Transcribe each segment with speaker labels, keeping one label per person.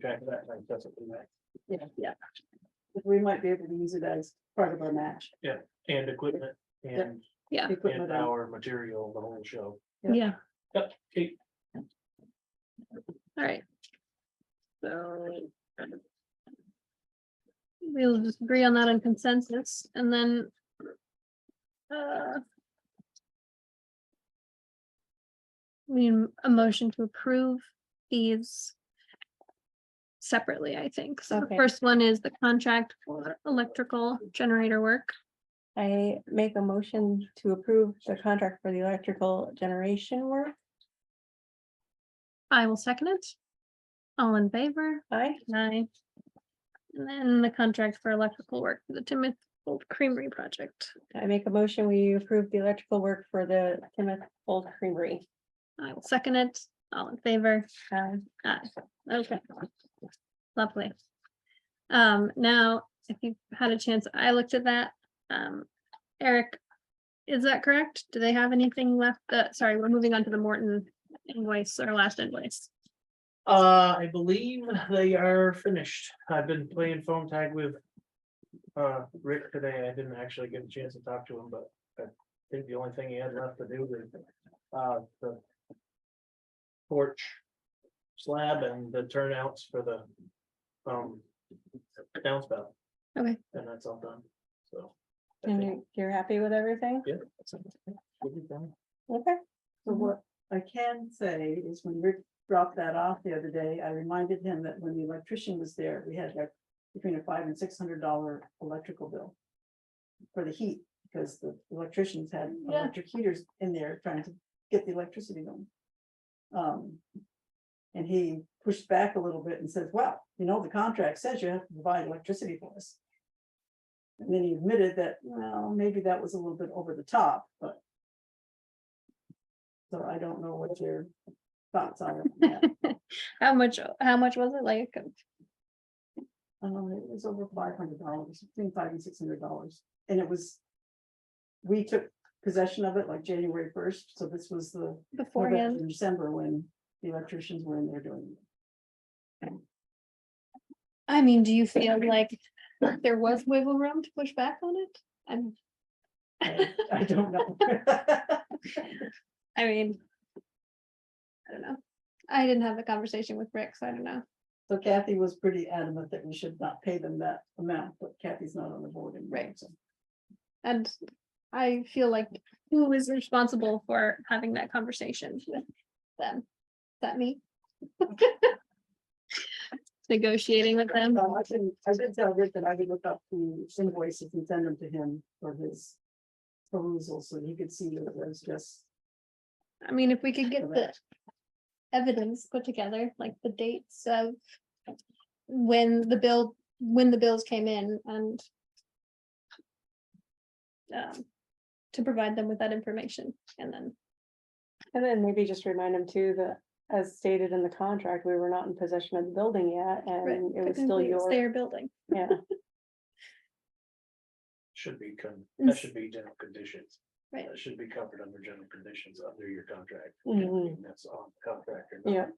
Speaker 1: track of that, like, that's what we like.
Speaker 2: Yeah, yeah. We might be able to use it as part of our match.
Speaker 1: And equipment and,
Speaker 3: Yeah.
Speaker 2: Equipment
Speaker 1: and
Speaker 2: and-
Speaker 1: our material, the whole show.
Speaker 2: Yeah.
Speaker 3: Yeah,
Speaker 1: Yep, okay,
Speaker 3: all right. So. We'll just agree on that on consensus and then. uh, We, need a motion to approve these. Separately, I think. So the
Speaker 4: Okay.
Speaker 3: first one is the contract for electrical generator work.
Speaker 4: I make a motion to approve the contract for the electrical generation work.
Speaker 3: I will second it. All in favor?
Speaker 4: Aye.
Speaker 3: Aye. And then the contract for electrical work, for the Timoth Old Creamery project.
Speaker 4: I make a motion, we approve the electrical work for the Timoth Old Creamery.
Speaker 3: I will second it. All in favor?
Speaker 4: Aye.
Speaker 3: Aye. Okay. Lovely. Um, now, if you had a chance, I looked at that. Um, Eric, is that correct? Do they have anything left? Uh, sorry, we're moving on to the Morton invoice, our last invoice.
Speaker 1: Uh, I believe they are finished. I've been playing phone tag with. Uh, Rick today. I didn't actually get a chance to talk to him, but I think the only thing he had left to do was, uh, the. Porch slab and the turnouts for the, um, downspout,
Speaker 3: Okay,
Speaker 1: and that's all done, so. I
Speaker 4: And
Speaker 1: think-
Speaker 4: you- you're happy with everything?
Speaker 1: Yeah. that's it. We'll be done.
Speaker 4: Okay.
Speaker 2: So what I can say is when Rick dropped that off the other day, I reminded him that when the electrician was there, we had like between a five and six hundred dollar electrical bill. For the heat, because the electricians had
Speaker 3: Yeah.
Speaker 2: electric heaters in there trying to get the electricity going. Um. And he pushed back a little bit and says, well, you know, the contract says you have to provide electricity for us. And then he admitted that, well, maybe that was a little bit over the top, but so I don't know what your thoughts are. on that.
Speaker 3: how much, how much was it like?
Speaker 2: Um, it was over five hundred dollars, between five and six hundred dollars, and it was. We took possession of it like January first, so this was the. November,
Speaker 3: Beforehand?
Speaker 2: and December when the electricians were in there doing it.
Speaker 3: I mean, do you feel like there was wiggle room to push back on it? I'm,
Speaker 2: I- I don't know.
Speaker 3: I mean. I don't know. I didn't have the conversation with Rick, so I don't know.
Speaker 2: So Kathy was pretty adamant that we should not pay them that amount, but Kathy's not on the board anymore.
Speaker 3: Right.
Speaker 2: so.
Speaker 3: And I feel like who is responsible for having that conversation with them? Is that me? Negotiating with them.
Speaker 2: Um, I did I did tell Rick that I would look up the invoices and send them to him for his perusal, so he could see that it was just.
Speaker 3: I mean, if we could get the
Speaker 2: Correct.
Speaker 3: evidence put together, like the dates of when the bill, when the bills came in and um, to provide them with that information and then,
Speaker 4: And then maybe just remind them too that as stated in the contract, we were not in possession of the building yet and it
Speaker 3: right,
Speaker 4: was still
Speaker 3: technically it's
Speaker 4: yours.
Speaker 3: their building.
Speaker 4: Yeah.
Speaker 1: Should be, con-
Speaker 3: Ins-
Speaker 1: that should be general conditions.
Speaker 3: Mm. Right.
Speaker 1: That should be covered under general conditions under your contract.
Speaker 4: Mhm.
Speaker 3: Mm-hmm.
Speaker 1: And That's on the contract. or
Speaker 4: Yeah.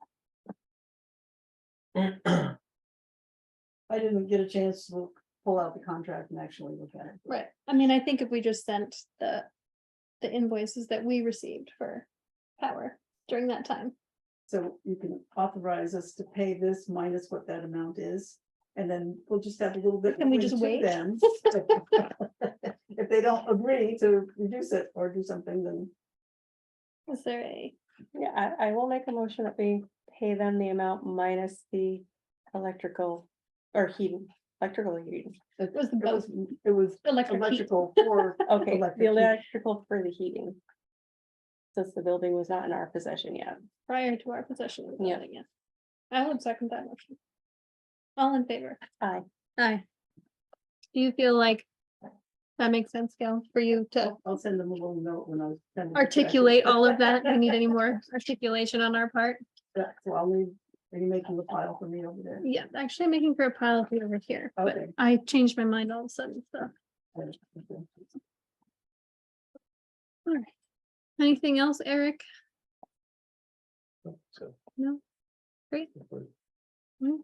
Speaker 1: not.
Speaker 2: I didn't get a chance to look- pull out the contract and actually look at it.
Speaker 3: Right, I mean, I think if we just sent the, the invoices that we received for power during that time.
Speaker 2: So you can authorize us to pay this minus what that amount is, and then we'll just have a little bit.
Speaker 3: Can we
Speaker 2: between
Speaker 3: just
Speaker 2: two
Speaker 3: wait?
Speaker 2: then. If they don't agree to reduce it or do something, then
Speaker 3: Is there a,
Speaker 4: Yeah, I, I will make a motion that we pay them the amount minus the electrical or heating, electrical heating.
Speaker 2: it
Speaker 3: was the
Speaker 2: it
Speaker 3: both
Speaker 2: was, it was
Speaker 3: electric heat?
Speaker 2: electrical for
Speaker 4: Okay,
Speaker 2: Electric
Speaker 4: the
Speaker 2: heat.
Speaker 4: electrical for the heating. Since the building was not in our possession yet.
Speaker 3: prior to our possession of the
Speaker 4: Yeah.
Speaker 3: building, yeah. I would second that motion. All in favor?
Speaker 4: Aye.
Speaker 3: Aye. Do you feel like that makes sense, Gail, for you to
Speaker 2: I'll I'll send them a little note when I. send them the check.
Speaker 3: articulate all of that? Do you need any more articulation on our part?
Speaker 2: Yeah, So I'll leave, are you making the file for me over there?
Speaker 3: Yeah, actually I'm making for a pile of it over here, but
Speaker 2: Okay.
Speaker 3: I changed my mind all of a sudden, so. Anything else, Eric?
Speaker 1: So.
Speaker 3: No. Great.
Speaker 1: If we're-
Speaker 3: Mm.